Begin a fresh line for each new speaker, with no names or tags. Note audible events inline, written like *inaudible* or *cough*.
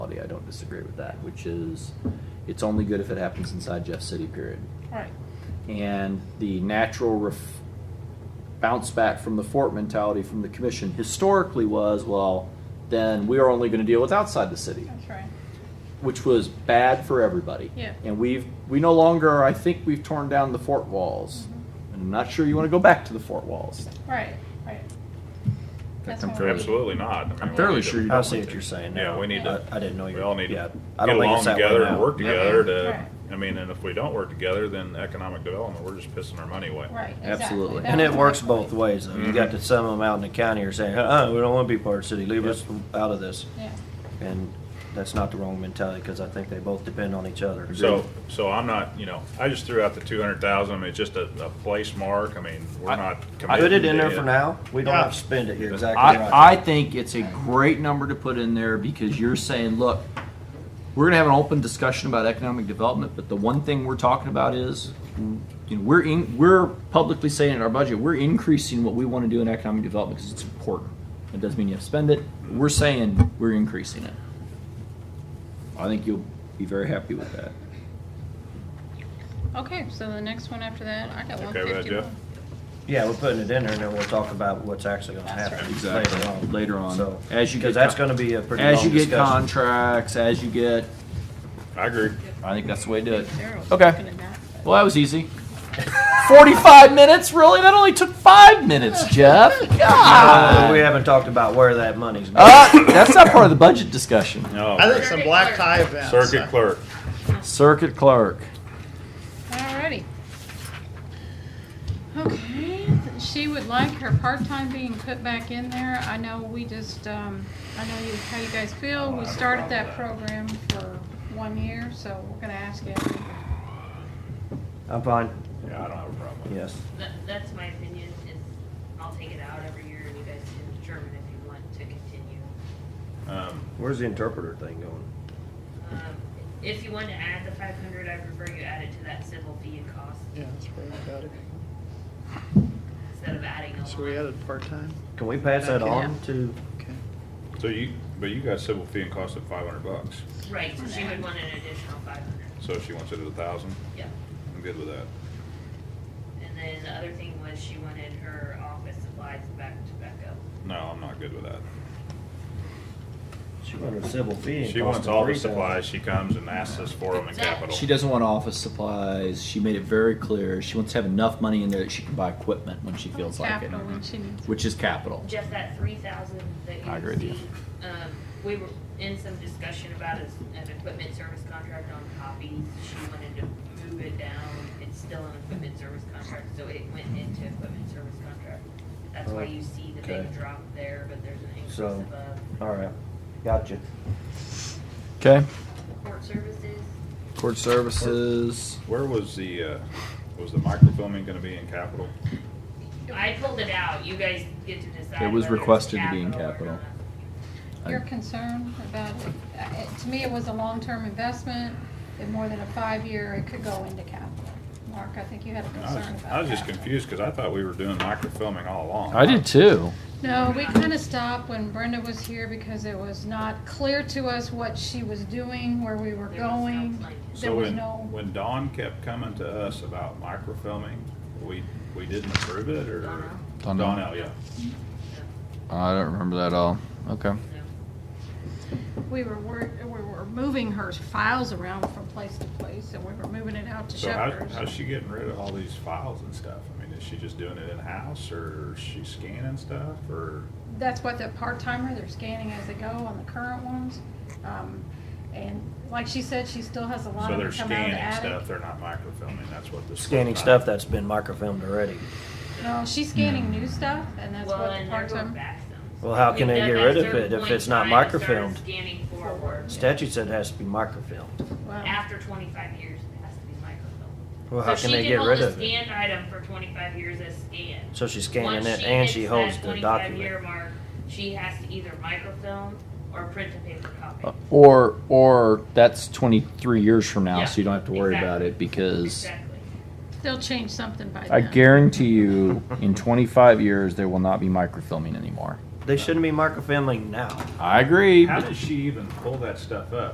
municipality, I don't disagree with that, which is, it's only good if it happens inside Jeff City, period.
Right.
And the natural ref- bounce back from the fort mentality from the commission historically was, well, then we are only gonna deal with outside the city
That's right.
which was bad for everybody.
Yeah.
And we've we no longer I think we've torn down the fort walls. And I'm not sure you want to go back to the fort walls.
Right. Right. That's
I'm
what we-
Absolutely not. I mean, we
I'm fairly
need to-
sure you
I
don't
see
need
what
to.
you're saying.
Yeah,
now.
we need to-
I, I didn't know you.
We all need
yeah,
to
I
get
don't think
along
it's that way
together and
now.
work
Yeah.
together to,
Right.
I mean, and if we don't work together, then economic development, we're just pissing our money away.
Right. Exactly.
Absolutely.
That
And it
was
works
my
both
point.
ways, though. You got
Mm-hmm.
to some of them out in the county are saying, uh-uh, we don't want to be part of the city, leave us out of this.
Yeah.
And that's not the wrong mentality, because I think they both depend on each other.
So, so I'm not, you know, I just threw out the two hundred thousand, it's just a, a place mark, I mean, we're
I-
not committed.
Put it in
to
there for now. We don't have to spend it. You're exactly
I, I
right.
think it's a great number to put in there because you're saying, look, we're gonna have an open discussion about economic development, but the one thing we're talking about is you know, we're in, we're publicly saying in our budget, we're increasing what we want to do in economic development because it's important. It doesn't mean you have to spend it. We're saying we're increasing it. I think you'll be very happy with that.
Okay. So the next one after that, I got
Okay with
one
that,
fifty
Jeff?
one.
Yeah, we're putting it in there, and then we'll talk about what's actually going to
That's
happen
right. Exactly.
later on.
Later on.
So,
As you
because
get
that's
con-
going to be a pretty long
As you
discussion.
get contracts, as you get,
I agree.
I think that's the way to do it.
Daryl's
Okay.
looking at that, but-
Well, that was *laughs* easy. 45 minutes? Really? That only took five minutes, Jeff.
Uh,
God.
We haven't talked about where that money's going.
Uh, that's not part of the budget discussion.
I
No,
think some black tie events.
circuit clerk,
Circuit clerk.
Alrighty. Okay, she would like her part-time being put back in there. I know we just, um, I know you, how you guys feel. We started that program for one year, so we're gonna ask you.
I'm fine.
yeah, I don't have a problem with it.
Yes.
That, that's my opinion, is I'll take it out every year and you guys can determine if you want to continue.
Um,
Where's the interpreter thing going?
Um, If you want to add the five hundred, I prefer you add it to that civil fee and cost
Yeah, that's where we got it.
instead of adding a
So we
line.
added part-time,
Can we pass that
Okay.
on to,
okay.
So you, but you got civil fee and cost of five hundred bucks,
Right, so she would want an additional five hundred,
so if she wants it at a thousand,
yeah.
I'm good with that.
And then the other thing was she wanted her office supplies back to back up.
No, I'm not good with that.
she wanted a civil fee and
She wants
cost of
all the
3,000.
supplies, she comes and asks us for them in capital.
She doesn't want office supplies. She made it very clear. She wants to have enough money in there that she can buy equipment when she feels like it,
Capital when she needs.
which is capital.
Jeff, that three thousand that
I agree
you
with you.
see, um, we were in some discussion about as an equipment service contract on copies. She wanted to move it down. It's still an equipment service contract, so it went into equipment service contract. That's why you see the
Okay.
big drop there, but there's an increase
So-
above
All right, gotcha.
Okay.
court services.
Court services.
Where was the, uh, was the microfilming gonna be in capital?
I pulled it out. You guys get to decide.
It was
whether it's
requested to be in
or
capital.
not.
Your concern about, uh, it- to me, it was a long-term investment. In more than a five-year, it could go into capital. Mark, I think you had a
I
concern
was,
about that.
I was just confused, cause I thought we were doing microfilming all along.
I did too.
No, we kind of stopped when Brenda was here because it was not clear to us what she was doing, where we were
There was no
going.
plan.
There
So
was
when,
no,
when Dawn kept coming to us about microfilming, we, we didn't approve it, or?
Dawn.
Donnell, yeah.
I don't remember that at all. Okay.
No.
we were, wor- we were moving her files around from place to place and we were moving it out to
So how,
Shepherd's.
how's she getting rid of all these files and stuff? I mean, is she just doing it in-house, or is she scanning stuff, or?
That's what the part-timer, they're scanning as they go on the current ones. Um, And like she said, she still has a lot
So
of
they're
them come out of the
scanning stuff,
attic.
they're not microfilming, that's what this. was
Scanning
about.
stuff that's been microfilmed already.
No, she's scanning new stuff and that's
Well,
what the
and they're going
part-time.
back some.
Well, how can they get
They've done
rid
that
of it if
certain
it's not
point in time and
microfilmed?
started Scanning forward.
Statute said it has to be microfilmed.
Well,
After twenty-five years, it has to be microfilmed.
Well, how
So
can
she
they
can
get
hold
rid
a
of it?
Scanned item for twenty-five years as scanned.
So she's scanning
Once
it and
hits
she
that
holds the
25 Year
document.
mark, she has to either microfilm or print a paper
Oh,
copy.
Uh, Or or that's 23 years from now,
Yeah,
so you don't have to worry about
exactly.
it because
Exactly.
they'll change something by
I
then.
guarantee you, in 25 years, there will not be microfilming anymore.
They shouldn't be microfilming now.
I agree.
How
but-
does she even pull that stuff up?